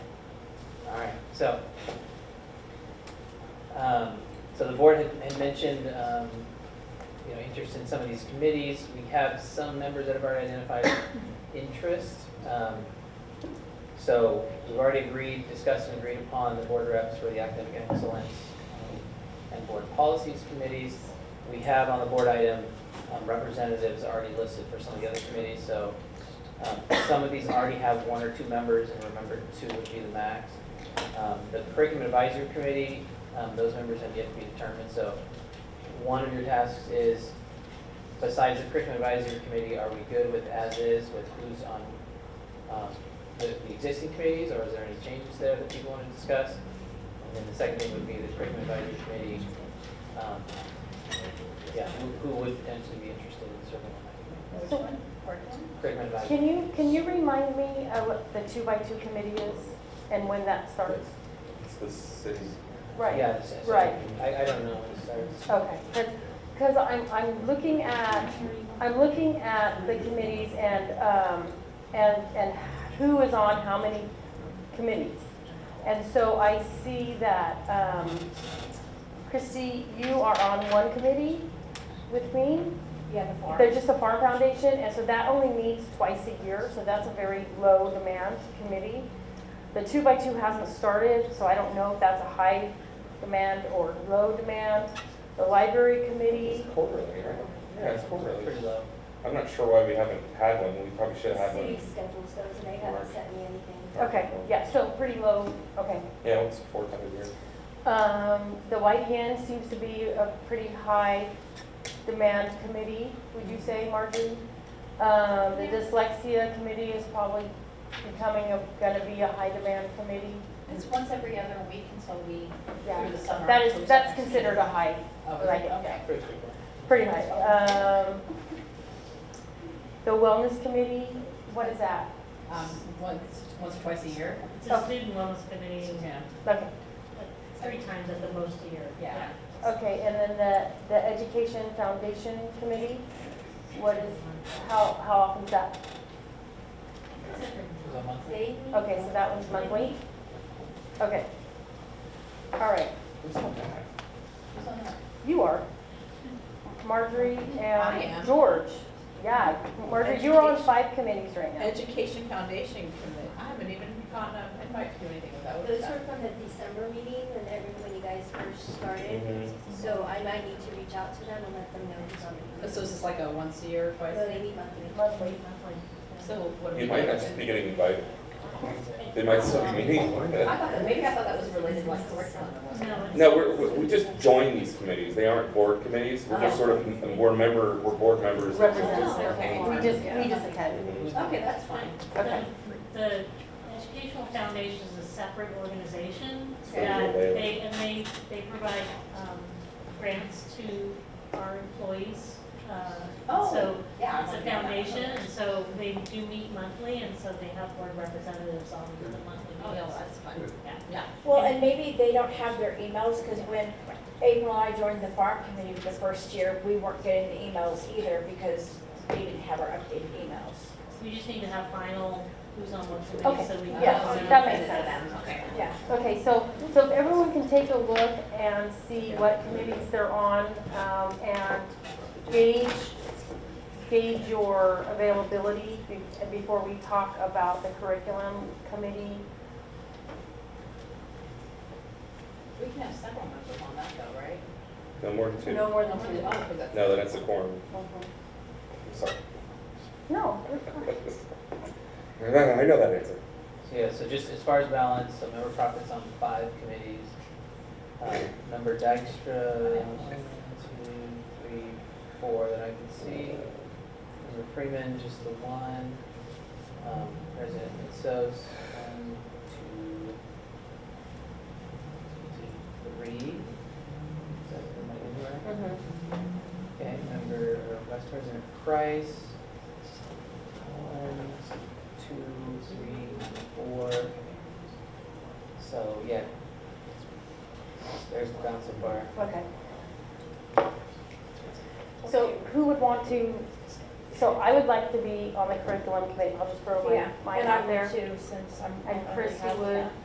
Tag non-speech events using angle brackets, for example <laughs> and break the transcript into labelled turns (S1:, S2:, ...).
S1: So, um, so the board had, had mentioned, um, you know, interest in some of these committees. We have some members that have already identified <coughs> interest. Um, So we've already agreed, discussed and agreed upon the board reps for the academic excellence um, and board policies committees. We have on the board item um, representatives already listed for some of the other committees, so um, Some of these already have one or two members, and remember, two would be the max. Um, The curriculum advisory committee, um, those members have yet to be determined, so one of your tasks is, besides the curriculum advisory committee, are we good with as-is, with who's on um, the the existing committees, or is there any changes there that people want to discuss? And then the second thing would be the curriculum advisory committee, um, yeah, who- who would potentially be interested in serving on that committee?
S2: Which
S3: So-
S2: one? Curriculum?
S1: Curriculum advisory.
S3: Can you, can you remind me of what the two-by-two committee is and when that starts?
S4: It's the city.
S3: Right.
S1: Yeah, it's- it's-
S3: Right.
S1: I, I don't know when it starts.
S3: Okay, because I'm, I'm looking at, I'm looking at the committees and, um, and, and who is on how many committees. And so I see that, um, Christy, you are on one committee with me.
S2: Yeah, the farm.
S3: They're just a farm foundation, and so that only meets twice a year, so that's a very low demand committee. The two-by-two hasn't started, so I don't know if that's a high demand or low demand. The library committee,
S4: It's quarterly, right? Yeah, it's
S5: Oh,
S4: quarterly.
S1: Pretty low.
S4: I'm not sure why we haven't had one, we probably should have had
S2: City
S4: one.
S2: schedules those, and they haven't sent me anything.
S3: okay, yeah, so pretty low, okay.
S4: Yeah, it's four times a year.
S3: Um, the White Hen seems to be a pretty high demand committee, would you say, Marjorie? Um, the dyslexia committee is probably becoming a, gonna be a high demand committee.
S5: It's once every other week until we,
S3: Yeah,
S5: through the summer.
S3: that is, that's considered a high,
S5: Oh,
S3: like,
S5: okay.
S1: Pretty frequent.
S3: pretty high. Um, The wellness committee, what is that?
S5: Um, once, once, twice a year.
S6: It's a student wellness committee,
S5: Yeah.
S3: Okay,
S6: three times at the most a year.
S5: Yeah.
S3: okay, and then the, the education foundation committee, what is, how, how often is that?
S1: Is that monthly?
S2: They.
S3: Okay, so that one's monthly? Okay. All right,
S4: Who's on that?
S5: Who's on that?
S3: you are. Marjorie
S5: I
S3: and
S5: am.
S3: George. Yeah, Marjorie, you're on five committees right now.
S5: Education Foundation Committee. I haven't even gotten an invite to do anything with that. What is
S2: Those
S5: that?
S2: were from the December meeting, when every, when you guys first started,
S4: Mhm.
S2: so I might need to reach out to them and let them know who's on the.
S5: So is this like a once a year, twice?
S2: No, they meet monthly.
S3: Monthly.
S5: So what do we
S4: You
S5: do?
S4: might not just be getting invited. They might still
S3: <laughs>
S4: be meeting. why
S5: I
S4: not?
S5: thought that, maybe I thought that was related to like curriculum. or something.
S6: No, it's.
S4: No, we're, we- we just join these committees. They aren't board committees. We're just
S3: Yeah.
S4: sort of, we're member, we're board members. that just-
S3: Represents their
S5: Okay. Oh,
S3: form. We just, we just attend.
S5: Okay, that's fine.
S3: Okay.
S6: The- The Educational Foundation is a separate organization
S4: Okay.
S6: that they, and they, they provide um, grants to our employees. uh,
S5: Oh,
S6: So
S5: yeah, I
S6: it's a
S5: wanna know that.
S6: foundation, and so they do meet monthly, and so they have board representatives on the monthly
S5: Oh, yeah, well,
S6: meetings.
S5: that's fine.
S6: Yeah.
S5: Yeah.
S7: Well, and maybe they don't have their emails, because when April and I joined the farm committee the first year, we weren't getting the emails either, because we didn't have our updated emails.
S6: We just need to have final who's on what
S3: Okay,
S6: committee, so we can.
S3: yeah,
S6: know.
S3: that makes sense.
S5: Okay.
S7: Yeah.
S3: Okay, so, so if everyone can take a look and see what committees they're on, um, and gauge, gauge your availability be- before we talk about the curriculum committee.
S5: We can have several members on that though, right?
S4: No more than two.
S3: No
S4: No,
S3: more than two.
S5: Oh, 'cause that's-
S4: then it's a quorum.
S3: Mhm.
S4: I'm sorry. <laughs>
S3: No, you're fine.
S4: I know that answer.
S1: So yeah, so just as far as balance, so member profits on five committees. Uh, Member Dykstra, one, two, three, four that I can see. Member Freeman, just the one. Um, President Mitsos, one, two, two, three. Is that am I in the right?
S3: Mhm.
S1: Okay, member uh, Vice President Price. One, two, three, four. So, yeah. There's the council bar.
S3: Okay. So who would want to, so I would like to be on the curriculum committee, I'll just throw my,
S7: Yeah,
S3: mine
S7: and
S3: out
S7: I
S3: there.
S7: would too, since I'm.
S3: And
S7: I already
S3: Christy
S7: have
S3: would.
S7: that.